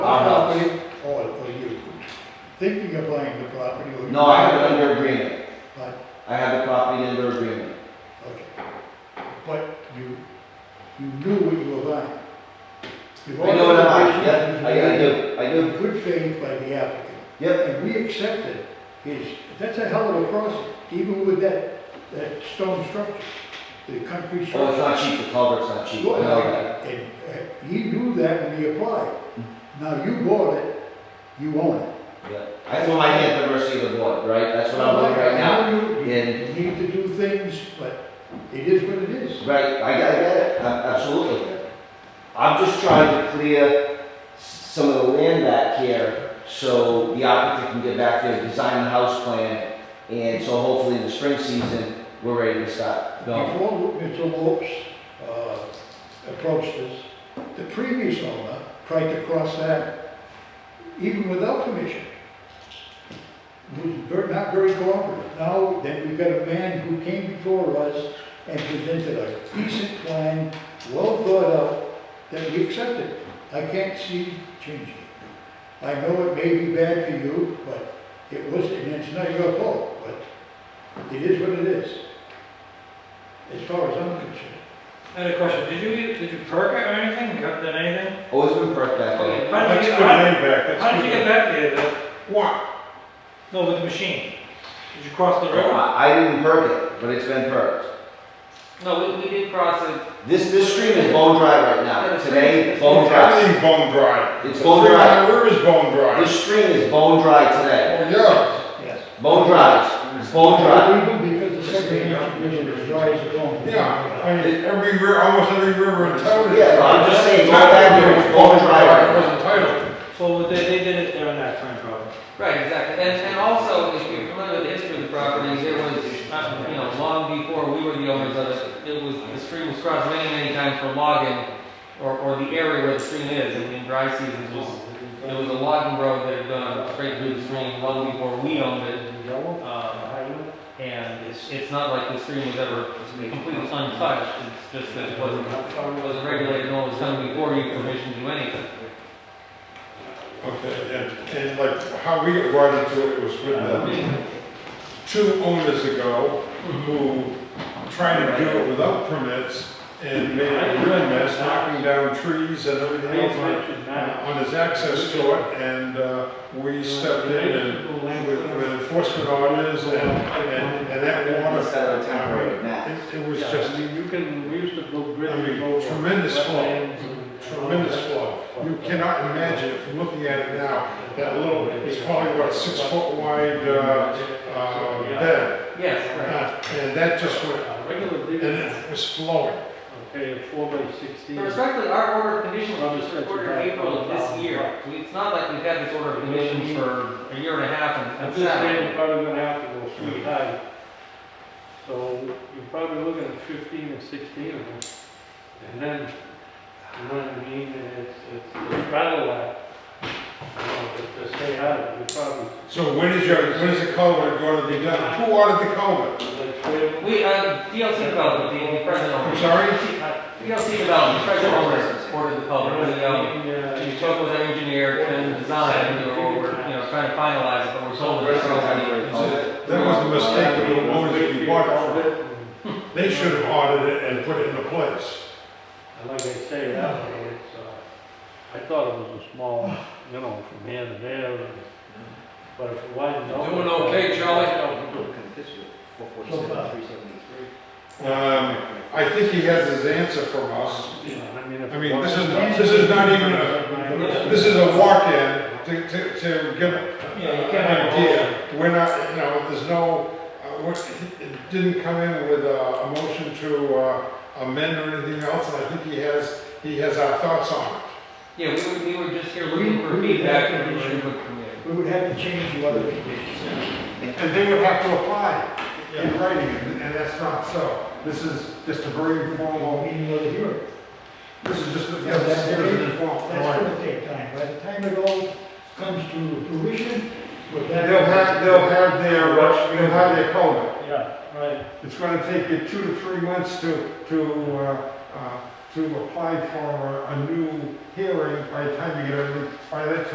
property? Oh, are you thinking of buying the property? or- No, I have it under agreement. But, I have the property under agreement. okay. But you, you knew what you were buying. I You've know what I'm already- buying, yep, I I do, I In do. good faith by the applicant, Yep, and we accepted his, that's a hell of a process, even with that, that stone structure, the concrete structure. well, it's not cheap, the culvert's not cheap, Oh, I Well, know that. Mm. And uh, he knew that when he applied. Now you bought it, you own it. Yeah. I throw my hand at the mercy of the board, right? That's what I'm doing right now. You- and- You need to do things, but it is what it is. Right, I gotta get it, A- absolutely. I'm just trying to clear s- some of the land back here so the applicant can get back there, design the house plan, and so hopefully in the spring season, we're ready to start going. Before Mr. Lopes uh, approached us, the previous owner tried to cross that even without permission. Was ver- not very cooperative. Now, then we've got a man who came before us and presented a decent plan, well thought out, that we accepted. I can't see changing it. I know it may be bad for you, but it was, and it's not your fault, but it is what it is as far as I'm concerned. I had a question, did you, did you perk it or anything, you haven't done anything? Always been perked back there. How did That's you good get, how, money back, that's how did you good. get back there, the, What? no, with the machine? Did you cross the river? I I didn't perk it, but it's been perked. No, we, we did cross it. This, this stream is bone dry right now. Today, bone dry. Everything's bone dry. It's bone The dry. Three Mile River's bone dry. This stream is bone dry today. Oh, yeah. Yes. Bone dry, it's bone dry. Even because the second application is dry as bone. Yeah, I mean, every, ri- almost every river in town is. Yeah, but I'm just saying, go back there, it's bone It dry. wasn't titled. So they, they did it during that time probably. Right, exactly. And, and also, if you're familiar with the history of the property, there was, uh, you know, long before we were the owners of it, it was, the stream was crossed many, many times for logging, or, or the area where the stream is, and in dry seasons, it was, it was a logging road that had gone straight through the stream long before we owned it. Um, and it's, it's not like the stream was ever completely untouched, it's just that it wasn't, it wasn't regulated, and all was done before you permission to do anything. Okay, and, and like, how we got brought into it was with the two owners ago who tried to do it without permits and made a real mess, knocking down trees and everything else on it. on his access to it, and uh, we stepped in and with with enforcement orders, and, and and that water, Instead of temporary mat. it- it was just You can, we used to go I grid. mean, tremendous flow, tremendous flow. You cannot imagine, from looking at it now, that little, it's probably about a six-foot wide uh, uh, bed, Yes, Uh, right. and that just went, Regular and digging, it was flowing. okay, a four by sixteen. So Respectfully, our order of conditions Well, was it's- ordered in April of this year. So It's not like we've had this order of conditions for a year and a half and- I'm and just saying, seven. you're probably gonna have to go three high. So you're probably looking at fifteen and sixteen of them. And then, you know what I mean, it's, it's a battle act. You know, to- to stay out of, it, you probably, So when is your, when is the culvert going to be done? Who ordered the culvert? like, trail. We, uh, DLC development, the the present I'm owner, sorry? DLC development, the present owner ordered the Oh, public, the, um, Yeah. we spoke with an engineer and design, and we were, we're, you know, trying to finalize it, but we're told that it's gonna be. That was the mistake of the owners we bought it from. They should have ordered it and put it into place. And like I say, that way, it's, uh, I thought it was a small, you know, from here to there, and- but if it widened out. Doing okay, Charlie? So far. Um, I think he has his answer from us. You know, I mean, if. I it mean, this is, widened out- this is not even a, this is a walk-in to, to, to get Yeah, you an can't have a idea. We're not, you know, there's no, uh, what- it didn't come in with a, a motion to uh, amend or anything else, and I think he has, he has our thoughts on it. Yeah, we were, we were just here We- looking for we- feedback and we should look from there. We would have to change the other conditions. And they would have to apply in writing, and and that's not so. This is just a very Well, informal, meaning of the hearing. this is just, Yeah, yeah, that's this is great. an informal. That's gonna take time. By the time it all comes to fruition, we're They'll back. have, they'll have their, they'll have their code. Yeah, right. It's gonna take you two to three months to, to, uh, uh, to apply for a new hearing by the time you get, every- by that time